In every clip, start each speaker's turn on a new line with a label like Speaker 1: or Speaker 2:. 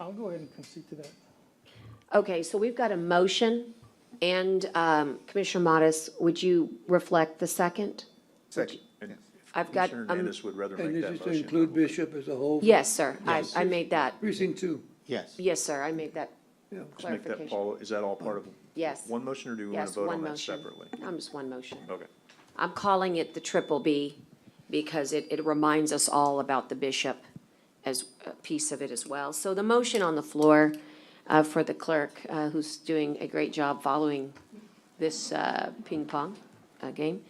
Speaker 1: I'll go ahead and concede to that.
Speaker 2: Okay, so we've got a motion, and um, Commissioner Modis, would you reflect the second?
Speaker 3: Second.
Speaker 2: I've got,
Speaker 4: Commissioner
Speaker 2: um,
Speaker 4: Hernandez would rather
Speaker 5: And
Speaker 4: make
Speaker 5: this
Speaker 4: that
Speaker 5: is to
Speaker 4: motion.
Speaker 5: include Bishop as a whole?
Speaker 2: yes, sir, I, I made that,
Speaker 5: Precinct two.
Speaker 3: Yes.
Speaker 2: yes, sir, I made that
Speaker 5: Yeah.
Speaker 4: Just make that,
Speaker 2: clarification.
Speaker 4: Paul, is that all part of?
Speaker 2: Yes.
Speaker 4: One motion, or do we want to
Speaker 2: Yes,
Speaker 4: vote
Speaker 2: one
Speaker 4: on that
Speaker 2: motion.
Speaker 4: separately?
Speaker 2: I'm just one motion.
Speaker 4: Okay.
Speaker 2: I'm calling it the triple B because it, it reminds us all about the bishop as a piece of it as well. So the motion on the floor uh, for the clerk, uh, who's doing a great job following this uh, ping pong uh, game,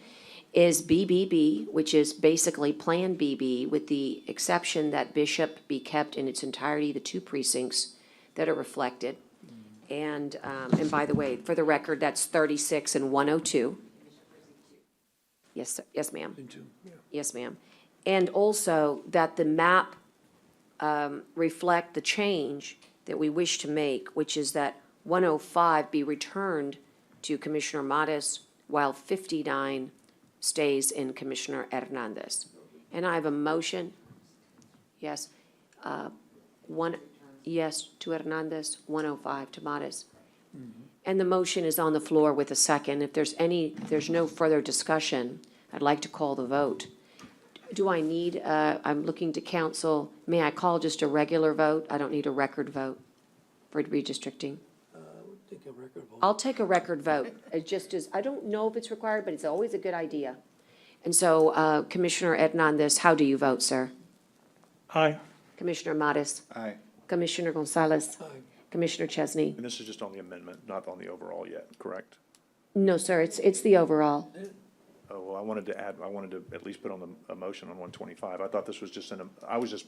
Speaker 2: is BBB, which is basically Plan BB, with the exception that bishop be kept in its entirety, the two precincts that are reflected. And, um, and by the way, for the record, that's 36 and 102. Yes, sir. yes, ma'am.
Speaker 5: Into-
Speaker 2: Yes, ma'am. And also that the map um, reflect the change that we wish to make, which is that 105 be returned to Commissioner Modis while 59 stays in Commissioner Hernandez. And I have a motion, yes, uh, one, yes to Hernandez, 105 to Modis. And the motion is on the floor with a second. If there's any, if there's no further discussion, I'd like to call the vote. Do I need, uh, I'm looking to council, may I call just a regular vote? I don't need a record vote for redistricting.
Speaker 5: Uh, Take a record vote.
Speaker 2: I'll take a record vote, It just as, I don't know if it's required, but it's always a good idea. And so uh, Commissioner Hernandez, how do you vote, sir?
Speaker 1: Aye.
Speaker 2: Commissioner Modis?
Speaker 3: Aye.
Speaker 2: Commissioner Gonzalez? Commissioner Chesney?
Speaker 4: And this is just on the amendment, not on the overall yet, correct?
Speaker 2: No, sir, it's, it's the overall.
Speaker 4: Oh, well, I wanted to add, I wanted to at least put on the, a motion on one twenty-five. I thought this was just an, am- I was just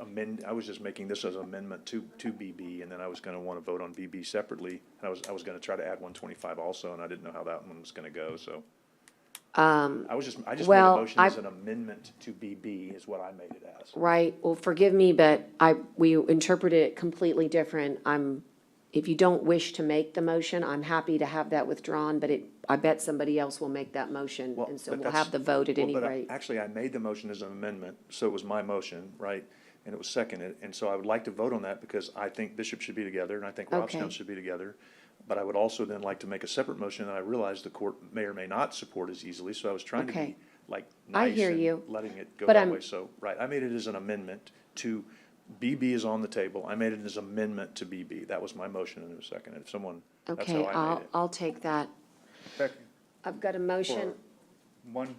Speaker 4: amend, I was just making this as an amendment to, to BB, and then I was gonna wanna vote on BB separately. And I was, I was gonna try to add one twenty-five also, and I didn't know how that one was gonna go, so. Um. I was just, I just made a
Speaker 2: well,
Speaker 4: motion as
Speaker 2: I-
Speaker 4: an amendment to BB is what I made it as.
Speaker 2: Right, well, forgive me, but I, we interpreted it completely different. I'm, if you don't wish to make the motion, I'm happy to have that withdrawn, but it, I bet somebody else will make that motion,
Speaker 4: Well,
Speaker 2: and so
Speaker 4: but
Speaker 2: we'll
Speaker 4: that's-
Speaker 2: have the vote at
Speaker 4: well,
Speaker 2: any
Speaker 4: but I-
Speaker 2: rate.
Speaker 4: Actually, I made the motion as an amendment, so it was my motion, right? And it was seconded, and so I would like to vote on that because I think Bishop should be together, and I think Robstown
Speaker 2: Okay.
Speaker 4: should be together. But I would also then like to make a separate motion, and I realize the court may or may not support as easily, so I was trying to
Speaker 2: Okay.
Speaker 4: be, like,
Speaker 2: I
Speaker 4: nice
Speaker 2: hear you,
Speaker 4: and letting it go
Speaker 2: but
Speaker 4: that
Speaker 2: I'm-
Speaker 4: way. So, right, I made it as an amendment to, BB is on the table, I made it as amendment to BB. That was my motion and it was seconded. If someone, that's
Speaker 2: Okay,
Speaker 4: how I
Speaker 2: I'll,
Speaker 4: made it.
Speaker 2: I'll take that.
Speaker 3: Second.
Speaker 2: I've got a motion
Speaker 3: One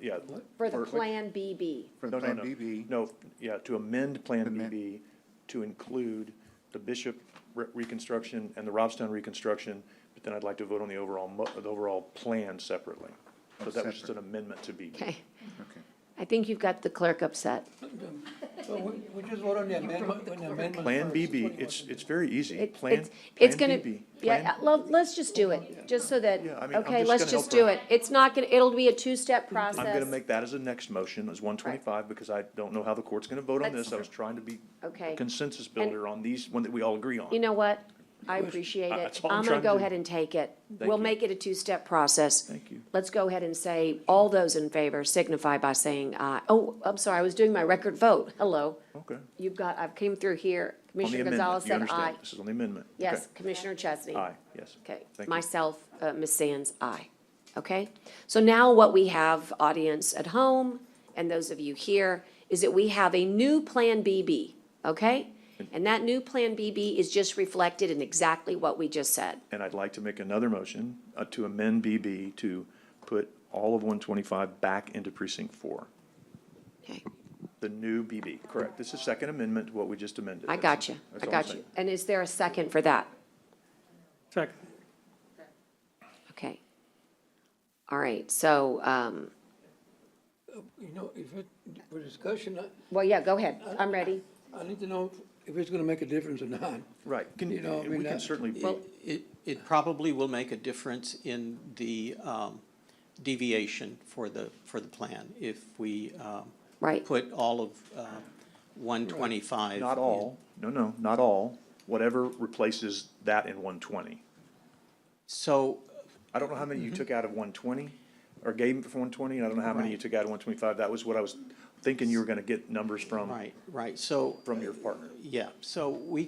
Speaker 4: Yeah.
Speaker 2: for the
Speaker 4: for-
Speaker 2: Plan BB.
Speaker 3: for
Speaker 4: No, no,
Speaker 3: Plan
Speaker 4: no.
Speaker 3: BB.
Speaker 4: No, yeah, to amend Plan
Speaker 3: Amend.
Speaker 4: BB to include the Bishop re- reconstruction and the Robstown reconstruction, but then I'd like to vote on the overall, mo- the overall plan separately. So that was just an
Speaker 3: separate.
Speaker 4: amendment to BB.
Speaker 2: Okay,
Speaker 3: Okay.
Speaker 2: I think you've got the clerk upset.
Speaker 5: So we, we just vote on the amendment, on the amendment
Speaker 4: Plan
Speaker 5: first.
Speaker 4: BB, it's, it's very easy.
Speaker 2: It-
Speaker 4: Plan,
Speaker 2: it's- It's
Speaker 4: Plan
Speaker 2: gonna,
Speaker 4: BB.
Speaker 2: yeah,
Speaker 4: Plan-
Speaker 2: let, let's just do it, just so that,
Speaker 4: Yeah, I mean, I'm
Speaker 2: okay,
Speaker 4: just
Speaker 2: let's
Speaker 4: gonna
Speaker 2: just
Speaker 4: help
Speaker 2: do
Speaker 4: her.
Speaker 2: it. It's not gonna, it'll be a two-step process.
Speaker 4: I'm gonna make that as a next motion, as one twenty-five, because I don't know how the court's gonna vote on
Speaker 2: Let's-
Speaker 4: this. I was trying to be
Speaker 2: Okay.
Speaker 4: consensus builder on these, one that we all agree on.
Speaker 2: You know what? I appreciate it.
Speaker 4: That's all I'm
Speaker 2: I'm gonna
Speaker 4: trying to
Speaker 2: go
Speaker 4: do.
Speaker 2: ahead and take it.
Speaker 4: Thank
Speaker 2: We'll
Speaker 4: you.
Speaker 2: make it a two-step process.
Speaker 4: Thank you.
Speaker 2: Let's go ahead and say, all those in favor signify by saying aye. Oh, I'm sorry, I was doing my record vote. Hello.
Speaker 4: Okay. On
Speaker 2: You've got, I've came through here.
Speaker 4: the
Speaker 2: Commissioner
Speaker 4: amendment,
Speaker 2: Gonzalez
Speaker 4: you
Speaker 2: said
Speaker 4: understand.
Speaker 2: aye.
Speaker 4: This is on the amendment. Okay.
Speaker 2: Yes, Commissioner Chesney.
Speaker 4: Aye, yes.
Speaker 2: Okay,
Speaker 4: Thank you.
Speaker 2: myself, uh, Ms. Sands, aye. Okay? So now what we have, audience at home, and those of you here, is that we have a new Plan BB, okay? And that new Plan BB is just reflected in exactly what we just said.
Speaker 4: And I'd like to make another motion uh, to amend BB to put all of 125 back into precinct four,
Speaker 2: Okay,
Speaker 4: the new BB, correct? This is second amendment to what we just amended.
Speaker 2: I got you,
Speaker 4: That's
Speaker 2: I
Speaker 4: all I'm
Speaker 2: got you.
Speaker 4: saying.
Speaker 2: And is there a second for that?
Speaker 1: Second.
Speaker 2: Okay. All right, so, um,
Speaker 5: You know, if it, for discussion, I,
Speaker 2: well, yeah, go ahead, I'm ready.
Speaker 5: I need to know if it's gonna make a difference or not.
Speaker 4: Right, can,
Speaker 5: You know, I mean,
Speaker 4: we can
Speaker 5: that-
Speaker 4: certainly,
Speaker 6: Well, it, it probably will make a difference in the um, deviation for the, for the plan if we um,
Speaker 2: Right.
Speaker 6: put all of uh, 125.
Speaker 4: not all, no, no, not all, whatever replaces that in 120.
Speaker 6: So
Speaker 4: I don't know how many
Speaker 5: Mm-hmm.
Speaker 4: you took out of 120, or gave for 120, and I don't know how many you
Speaker 6: Right.
Speaker 4: took out of 125. That was what I was thinking you were going to get numbers from,
Speaker 6: Right, right, so,
Speaker 4: from your partner.
Speaker 6: yeah, so we